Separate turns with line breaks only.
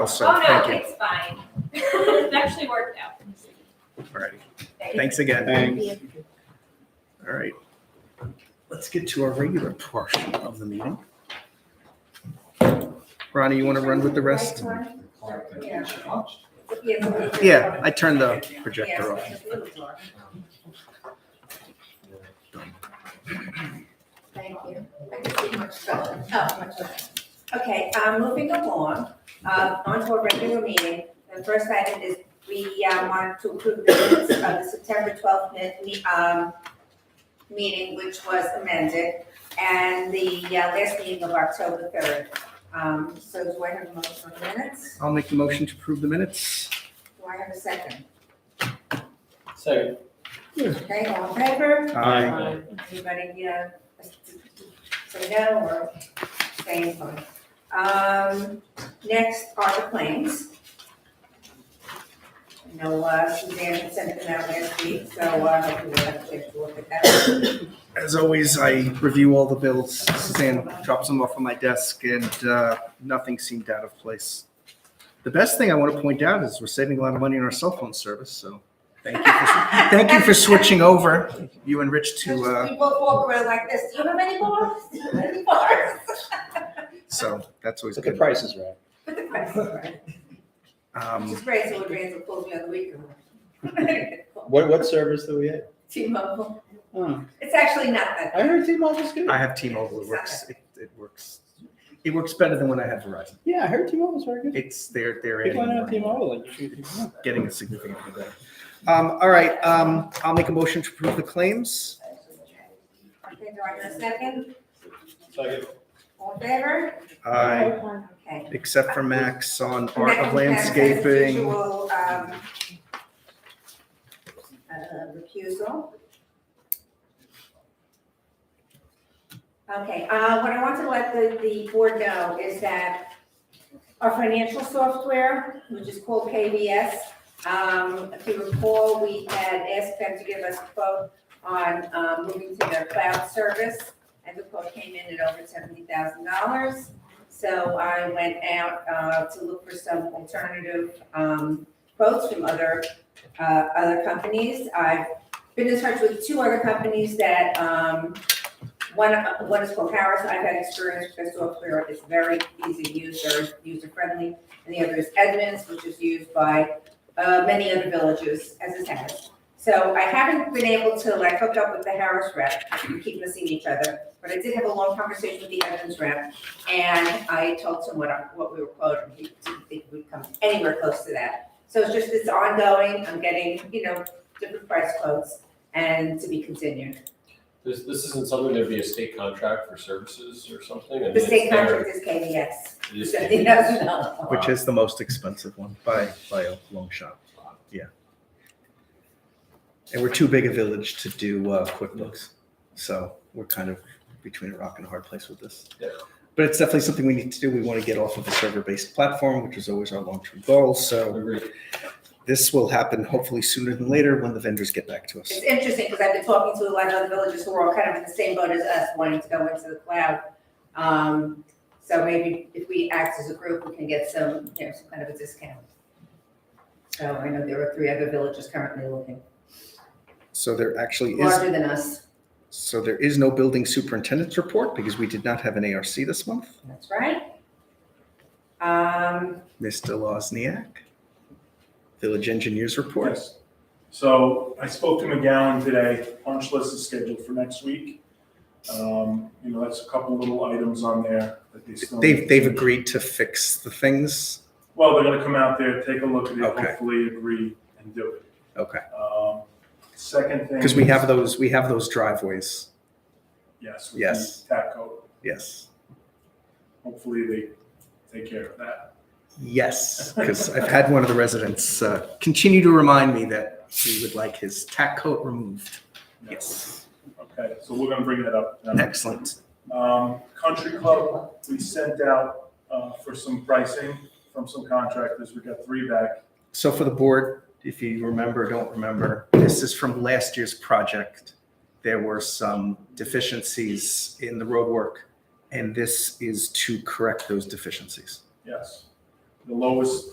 else, so
Oh, no,
thank you.
it's fine. It actually worked out.
All right. Thanks again.
Thanks.
All right. Let's get to our regular portion of the meeting. Ronnie, you want to run with the rest? Yeah, I turned the projector off.
Thank you. I can see much better. Oh, much better. Okay, uh, moving along, uh, on to our regular meeting. The first item is we uh, wanted to approve the minutes of the September twelfth um, meeting, which was amended, and the uh, last meeting of October third. Um, so do I have a motion on the minutes?
I'll make the motion to approve the minutes.
Do I have a second?
Second.
Okay, all in favor?
Aye.
Anybody, uh, say no or stay in place. Um, next are the claims. I know uh, Suzanne had sent them out last week, so uh, hopefully we'll have to take a look at that.
As always, I review all the bills. Suzanne drops them off on my desk and uh, nothing seemed out of place. The best thing I want to point out is we're saving a lot of money on our cell phone service, so thank you. for- Thank you for switching over, you and Rich, to, uh,
We both walk around like this, do you have any bars? Do you have any bars?
so that's always
But the
good.
price is right.
But the price is right. Which
Um,
is great, so when Randall calls me on the weekend.
What, what service do we have?
T-Mobile,
Oh,
it's actually not that.
I heard T-Mobile's good.
I have T-Mobile. It works. It, it works. It works better than when I had Verizon.
Yeah, I heard T-Mobile's very good.
It's they're they're
People
adding
don't have
more.
T-Mobile like you do.
It's getting a significant better. Um, all right. Um, I'll make a motion to approve the claims.
Okay, do I have a second?
Second.
All in favor?
I
Okay.
except for Max on art
Mac
of
and Max has
landscaping.
visual, um, uh, Recusal. Okay, uh, what I want to let the, the board know is that our financial software, which is called KBS, um, if you recall, we had asked them to give us a quote on, um, moving to their cloud service, and the quote came in at over seventy thousand dollars. So I went out uh, to look for some alternative um, quotes from other, uh, other companies. I've been in touch with two other companies that, um, one, one is called Harris, I've had experience with their software, it's very easy to use, very user-friendly. And the other is Edmunds, which is used by uh, many other villages, as is Harris. So I haven't been able to like hook up with the Harris rep, we keep missing each other, but I did have a long conversation with the Edmunds rep. And I told him what, I- what we were quoting, he didn't think we'd come anywhere close to that. So it's just, it's ongoing, I'm getting, you know, different price quotes and to be continued.
This, this isn't something that'd be a state contract for services or something? I mean,
The
it's
state
their-
contract is KDS,
it is
seventy
their-
thousand dollars.
Which is the most expensive one by, by a long shot. Yeah. And we're too big a village to do uh, QuickBooks. So we're kind of between a rock and a hard place with this.
Yeah.
But it's definitely something we need to do. We want to get off of a server-based platform, which is always our long-term goal. So
Agreed.
this will happen hopefully sooner than later when the vendors get back to us.
It's interesting, because I've been talking to a lot of other villages who are all kind of in the same boat as us, wanting to go into the cloud. Um, so maybe if we act as a group, we can get some, you know, some kind of a discount. So I know there are three other villages currently looking,
So there actually is,
larger than us,
so there is no building superintendent's report because we did not have an ARC this month.
that's right. Um,
Mr. Lozniak, Village Engineers Report.
Yes. So I spoke to McGowan today, punch list is scheduled for next week. Um, You know, that's a couple little items on there that they still.
They've, they've agreed to fix the things.
Well, they're gonna come out there, take a look at it,
Okay.
hopefully agree and do it.
Okay.
Um, Second thing.
Because we have
is-
those, we have those driveways.
Yes. with
Yes.
the Tap coat,
Yes.
hopefully they take care of that.
Yes. Because I've had one of the residents uh, continue to remind me that he would like his tack coat removed. Yes.
Okay, so we're gonna bring that up. now.
Excellent.
Um, Country Club, we sent out uh, for some pricing from some contractors, we got three back.
So for the board, if you remember, don't remember, this is from last year's project. There were some deficiencies in the roadwork, and this is to correct those deficiencies.
Yes. The- the lowest